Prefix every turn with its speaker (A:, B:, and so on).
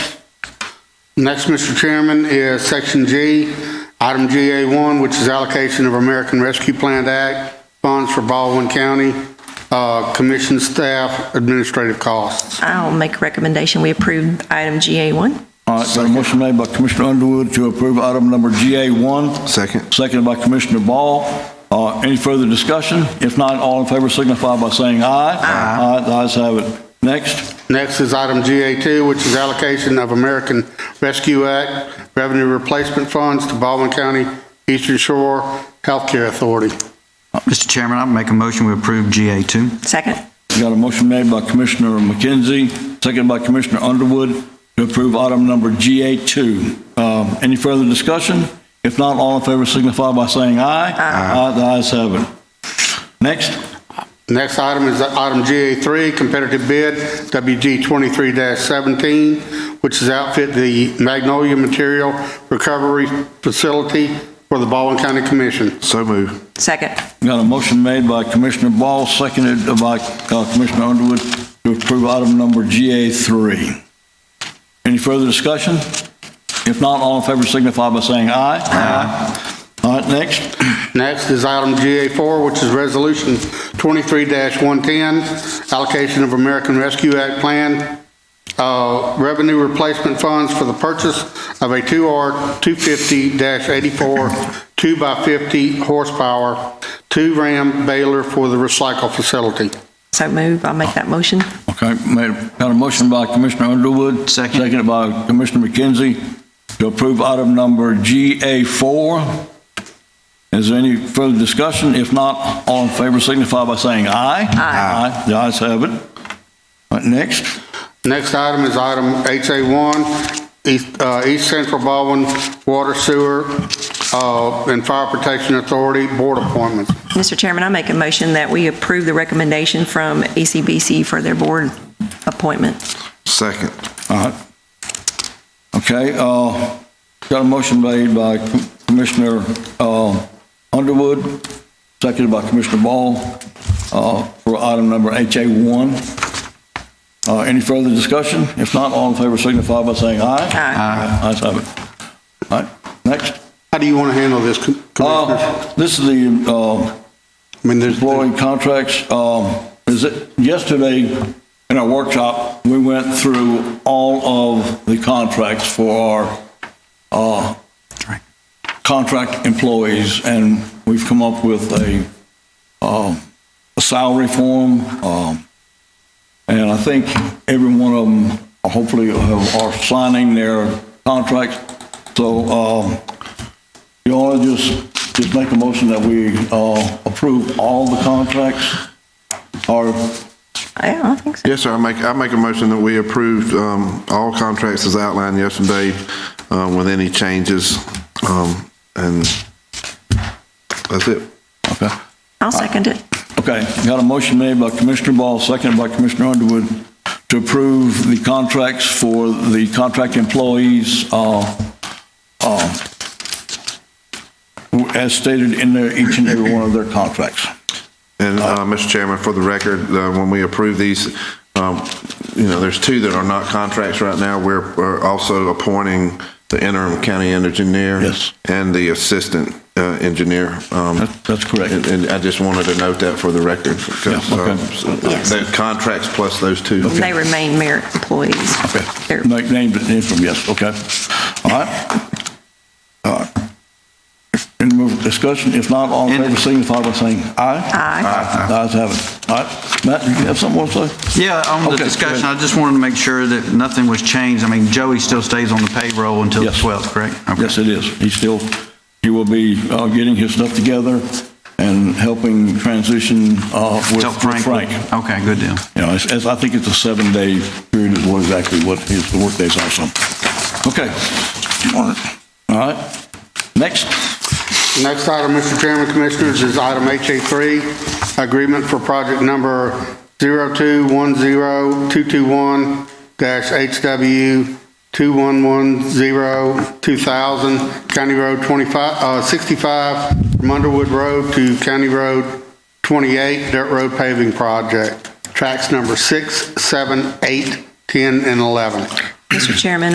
A: Next, Mr. Chairman, is Section G, Item GA1, which is allocation of American Rescue Plan Act funds for Baldwin County, uh, commission staff, administrative costs.
B: I'll make a recommendation, we approve item GA1.
C: All right, got a motion made by Commissioner Underwood to approve item number GA1.
D: Second.
C: Seconded by Commissioner Ball. Uh, Any further discussion? If not, all in favor signify by saying aye. Aye. The ayes have it. Next,
A: Next is Item GA2, which is allocation of American Rescue Act revenue replacement funds to Baldwin County Eastern Shore Healthcare Authority.
E: Mr. Chairman, I make a motion we approve GA2.
B: Second.
C: got a motion made by Commissioner McKenzie, seconded by Commissioner Underwood to approve item number GA2. Um, Any further discussion? If not, all in favor signify by saying aye. Aye. The ayes have it. Next,
A: Next item is item GA3, competitive bid, WG 23-17, which is outfit the Magnolia Material Recovery Facility for the Baldwin County Commission.
D: So move.
B: Second.
C: got a motion made by Commissioner Ball, seconded by uh, Commissioner Underwood to approve item number GA3. Any further discussion? If not, all in favor signify by saying aye. Aye. All right, next.
A: Next is item GA4, which is resolution 23-110, allocation of American Rescue Act Plan, uh, revenue replacement funds for the purchase of a 2R 250-84 2x50 horsepower, two Ram baler for the recycle facility.
B: So move, I'll make that motion.
C: Okay, made, got a motion by Commissioner Underwood.
E: Second.
C: Seconded by Commissioner McKenzie to approve item number GA4. Is there any further discussion? If not, all in favor signify by saying aye. Aye. The ayes have it. All right, next.
A: Next item is item HA1, East uh, East Central Baldwin Water Sewer uh, and Fire Protection Authority Board appointments.
B: Mr. Chairman, I make a motion that we approve the recommendation from E ECBC for their board appointment.
D: Second.
C: All right. Okay, uh, got a motion made by Commissioner, uh, Underwood, seconded by Commissioner Ball, uh, for item number HA one. Uh, any further discussion? If not, all in favor signify by saying aye.
B: Aye.
C: Ayes have it. All right, next.
A: How do you want to handle this, Com- Commissioners?
C: Uh, this is the, uh,
A: I mean, there's,
C: employee contracts, um, is it, yesterday in our workshop, we went through all of the contracts for our, uh, contract employees, and we've come up with a, um, a salary form, um, and I think every one of them hopefully have- are signing their contracts. So, um, you want to just, just make a motion that we uh, approve all the contracts? Or,
B: Yeah, I think so.
D: Yes, sir, I make, I make a motion that we approve um, all contracts as outlined yesterday um, with any changes. um, And that's it.
C: okay,
B: I'll second it.
C: okay, got a motion made by Commissioner Ball, seconded by Commissioner Underwood to approve the contracts for the contract employees uh, uh, as stated in their, each and every one of their contracts.
D: And, uh, Mr. Chairman, for the record, uh, when we approve these, um, you know, there's two that are not contracts right now. We're we're also appointing the interim county engineer.
C: Yes.
D: And the assistant uh, engineer. um,
C: That- That's correct.
D: And and I just wanted to note that for the record. because,
C: Yeah, okay.
D: um,
B: Yes.
D: The contracts plus those two.
B: They remain merit employees. They're-
C: Name, name, from, yes, okay. All right. All right. Any more discussion? If not, all in favor, signify by saying aye.
B: Aye.
C: The ayes have it. All right, Matt, did you have something more to say?
E: Yeah, on the
C: Okay,
E: discussion,
C: go
E: I
C: ahead.
E: just wanted to make sure that nothing was changed. I mean, Joey still stays on the payroll until the
C: Yes.
E: 12th, correct? Okay.
C: Yes, it is. He's still, he will be uh, getting his stuff together and helping transition uh, with
E: Tell
C: with
E: Frank.
C: Frank.
E: Okay, good deal.
C: You know, it's, it's, I think it's a seven-day period is what exactly what his workdays are, so. Okay. All right, next.
A: next item, Mr. Chairman, Commissioners, is item HA3, agreement for project number 0210221-HW21102000, County Road 25, uh, 65, from Underwood Road to County Road 28, Dirt Road Paving Project, tracks number 6, 7, 8, 10, and 11.
B: Mr. Chairman,